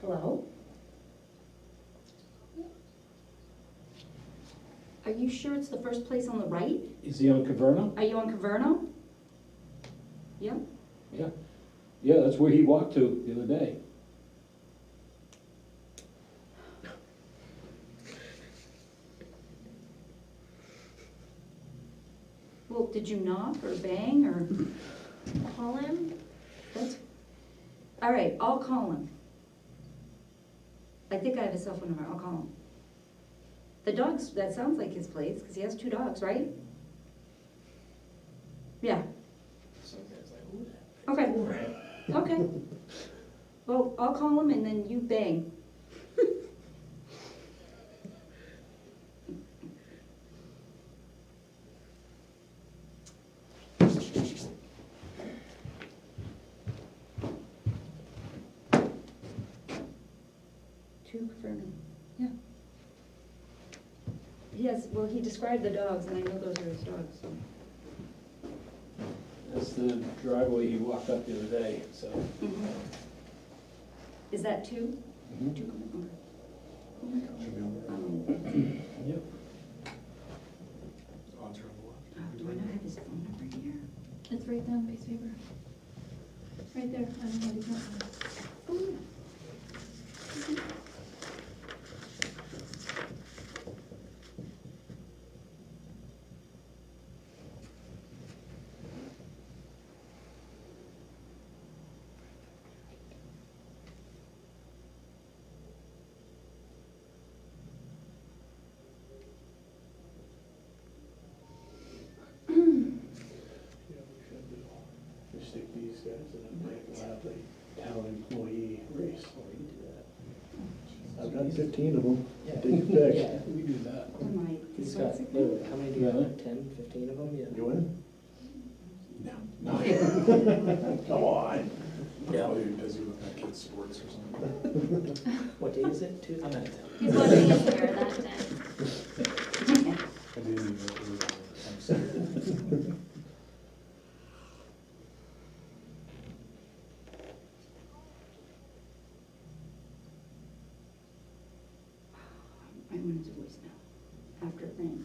Hello? Are you sure it's the first place on the right? Is he on Caverna? Are you on Caverno? Yep, Yeah. Yeah, that's where he walked to the other day. well, did you knock or bang or call him? That's, all right, I'll call him. I think I have his cell phone number, I'll call him. The dogs, that sounds like his place, because he has two dogs, right? Yeah, okay, okay. Well, I'll call him and then you bang. Two Caverna, yeah. He has, well, he described the dogs, and I know those are his dogs, so. That's the driveway he walked up the other day, so. Is that two? Mm-hmm. Two Caverna, okay. Oh my God. Um, Yep. uh, Do I not have his phone number here? It's right down the piece of paper. Right there, I don't know what he's not on. Oh, yeah. Just stick these guys in a break and have the town employee race. Oh, I've got fifteen of them, take your pick. We do that. Am I? He's so got, it's okay? wait, how many do you have, ten, fifteen of them, yeah? You in? No. Come on. Yeah. Oh, You're busy with that kid's sports or something. What day is it, Tuesday? I'm out of town. He's watching it here that day. I didn't even know it was on. I'm sorry. I wanted to voice now, after thing.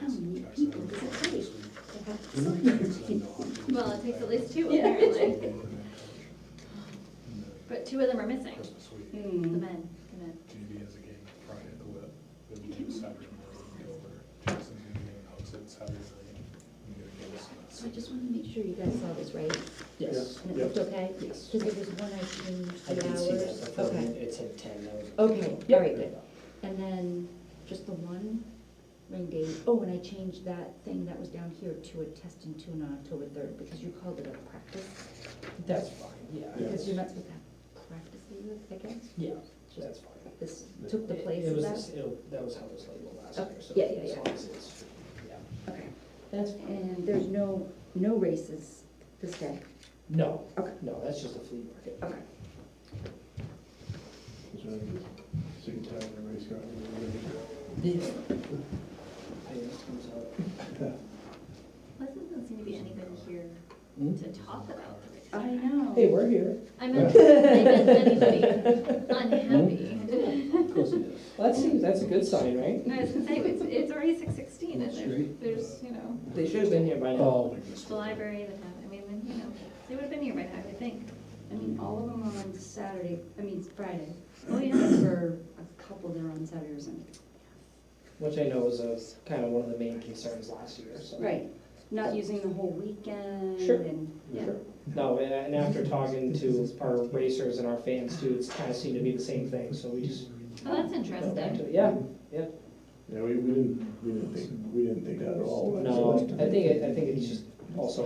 How many people does it take? to have so many people? Well, it takes at least two Yeah. apparently, but two of them are missing. Christmas week, The Hmm, men, the men. JV has a game Friday at the whip, then we do Saturday morning, we go over, Jackson's gonna be in Hudson Saturday morning. and we go to Smith's. So I just wanted to make sure you guys saw this right, Yes, and it Yeah. looked okay? yes. Because it was one I changed I the did see that, I hours. thought Okay, it said ten, that was. okay, all right, good. And then just the one rain date, oh, and I changed that thing that was down here to a test and tune on October third, because you called it a practice. That's fine, yeah. Because you're not supposed to have practices, I guess, Yeah, just that's fine. this took the It- place it of was that. this- it'll- That was how it was labeled last Okay, year, so. yeah, yeah, as yeah. long as it's- yeah. Okay, that's, fine. and there's no, no races this day, No, Okay. no, that's just a flea market. okay. Sick and tired of race car. Yeah. Hey, this comes out. Well, there doesn't seem to be anybody here Hmm? to talk about the race. I know. Hey, we're here. I meant, I meant anybody Hmm? unhappy. Of course he does. Well, that seems, that's a good sign, right? No, I was gonna say, it's, it's already six sixteen and That's there's, great. there's, you know, They should have been here by now. Oh, it's the library, the, town. I mean, then, you know, they would have been here by now, I would think. I mean, all of them are on Saturday, I mean, it's Friday. Oh, yeah, for a couple that are on Saturday or Sunday. Which I know was a, kind of one of the main concerns last year, so. Right, not using the whole weekend Sure. and, yeah. Sure. No, and- and after talking to our racers and our fans too, it's kind of seemed to be the same thing, so we just. Well, that's went back interesting. to it. Yeah, Yeah, we, we didn't, we didn't think, we didn't think that at all. no, I think, it- I think it's just also